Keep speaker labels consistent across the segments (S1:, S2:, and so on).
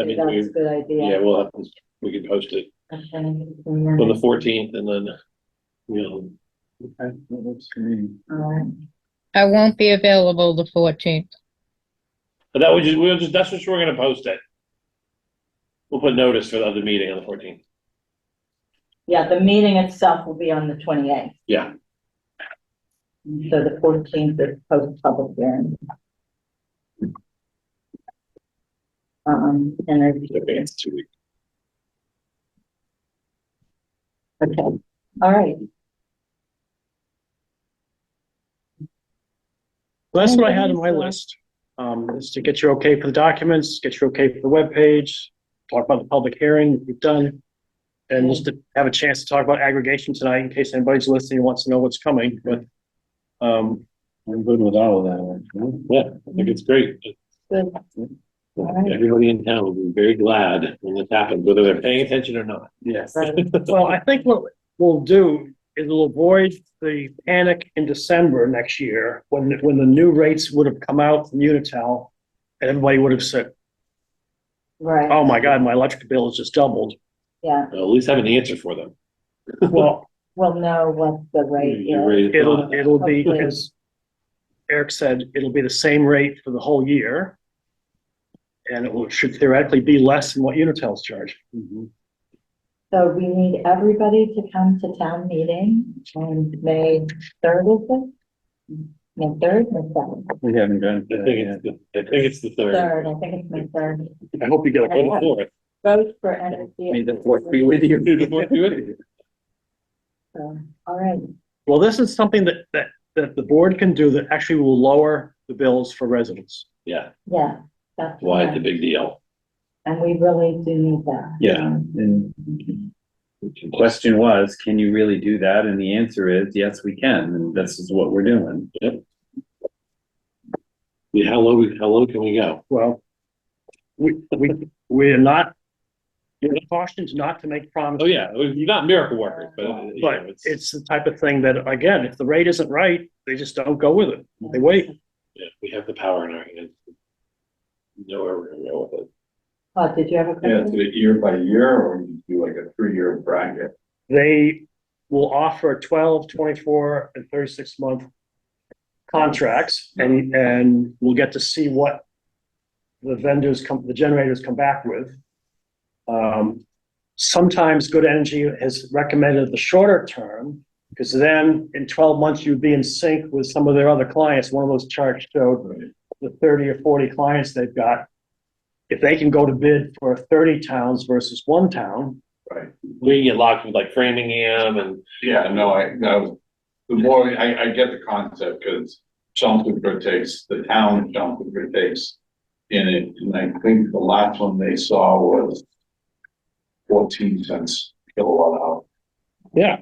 S1: I mean,
S2: That's a
S1: we,
S2: good idea.
S1: yeah, we'll have, this- we can post it
S2: Okay.
S1: on the fourteenth and then, you know,
S3: Okay, that works for me.
S2: All right.
S4: I won't be available the fourteenth.
S1: but that would just, we'll just, that's just, where we're gonna post it. We'll put notice for the other meeting on the fourteenth.
S2: Yeah, the meeting itself will be on the twenty-eighth,
S1: Yeah,
S2: so the fourteenth is post-public hearing. Um, and
S1: okay,
S2: I,
S1: it's two weeks.
S2: okay, all right.
S3: Well, that's what I had on my list, um, is to get you okay for the documents, get you okay for the webpage, talk about the public hearing we've done. And just to have a chance to talk about aggregation tonight in case anybody's listening and wants to know what's coming, but. Um,
S5: I'm good with all of that.
S1: Yeah, I think it's great.
S2: Good. right.
S1: Everybody in town will be very glad when this happens, whether they're paying attention or not.
S3: yes.
S2: Right.
S3: Well, I think what we'll do is we'll avoid the panic in December next year, when, when the new rates would have come out from Unitel. And everybody would have said,
S2: Right,
S3: oh my God, my electric bill has just doubled.
S2: yeah,
S1: At least have an answer for them.
S3: Well,
S2: we'll know what the rate
S1: You're
S2: is.
S1: raised-
S3: It'll, it'll be,
S2: Hopefully.
S3: as Eric said, it'll be the same rate for the whole year. And it will- should theoretically be less than what Unitel's charge.
S2: So we need everybody to come to town meeting on May third, is it? May third, May seventh,
S5: We haven't done
S1: I think
S5: that
S1: it's, the- I think it's the third.
S2: third, I think it's May third.
S3: I hope you get a
S1: Or the
S3: call.
S1: fourth.
S2: Vote for energy.
S5: yet. May the fourth be with you.
S1: Do the fourth do it?
S2: So, All right,
S3: Well, this is something that, that, that the board can do that actually will lower the bills for residents.
S1: Yeah,
S2: yeah, that's.
S1: why it's a
S2: right.
S1: big deal.
S2: And we really do need that. Um,
S5: Yeah, and the question was, can you really do that? And the answer is, yes, we can, and this is what we're doing.
S1: Yeah, How low, we- how low can we go?
S3: Well, we, we, we're not, we're cautioned not to make promises.
S1: Oh, yeah, you're not miracle workers, but. uh, you know,
S3: But it's the type of thing that, again, if the rate isn't right, they just don't go with it. They wait.
S1: yeah, We have the power in our hands. Know where we're gonna go with it.
S2: Todd, did you have a
S6: Yeah,
S2: question?
S6: do it year by year, or you do like a three-year bracket?
S3: they will offer 12, 24, and 36 month contracts and, and we'll get to see what the vendors come, the generators come back with. Um, Sometimes Good Energy has recommended the shorter term because then in 12 months you'd be in sync with some of their other clients. One of those charts showed the 30 or 40 clients they've got. If they can go to bid for 30 towns versus one town,
S6: Right.
S1: We get locked with like Framingham and,
S6: Yeah, no, I, no, the more, I, I get the concept, because Chelmsford takes, the town of Chelmsford takes in it, and I think the last one they saw was fourteen cents kilowatt hour.
S3: Yeah.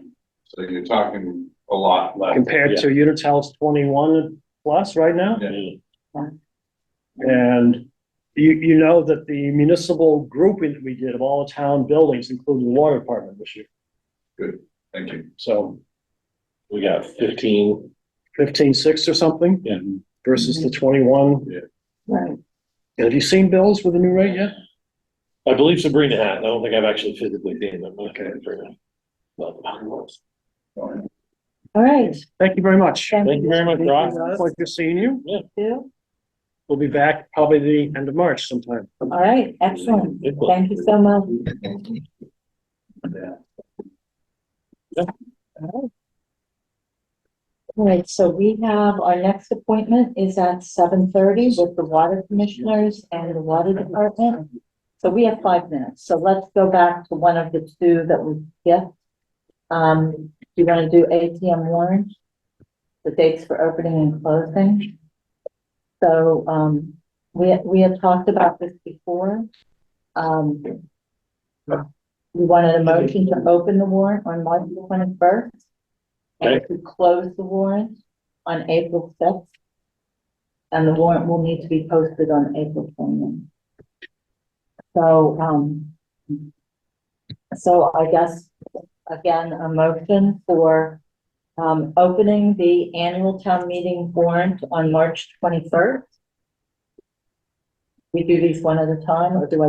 S6: So you're talking a lot less.
S3: compared to Unitel's twenty-one plus right now.
S1: Yeah.
S3: And you, you know that the municipal grouping that we did of all the town buildings, including the water department this year.
S6: Thank you.
S3: So
S1: we got fifteen.
S3: fifteen-six or something
S1: Yeah.
S3: versus the twenty-one.
S2: Right.
S3: Have you seen bills with the new rate yet?
S1: I believe Sabrina has. I don't think I've actually physically seen them. um,
S3: Okay.
S1: Well,
S2: All right.
S3: Thank you very much.
S1: Thank you very much, Ross.
S3: Pleasure seeing you.
S2: All
S3: We'll be back probably the end of March sometime.
S2: right, excellent. Thank you so much. All right, so we have, our next appointment is at seven thirty with the water commissioners and the water department. So we have five minutes, so let's go back to one of the two that we get. Um, do you wanna do ATM warrant? The dates for opening and closing? So, um, we, we had talked about this before. Um, we wanted a motion to open the warrant on March twenty-first. And to close the warrant on April sixth. And the warrant will need to be posted on April 20th. So, um, so I guess, again, a motion for, um, opening the annual town meeting warrant on March twenty-first. We do these one at a time, or do I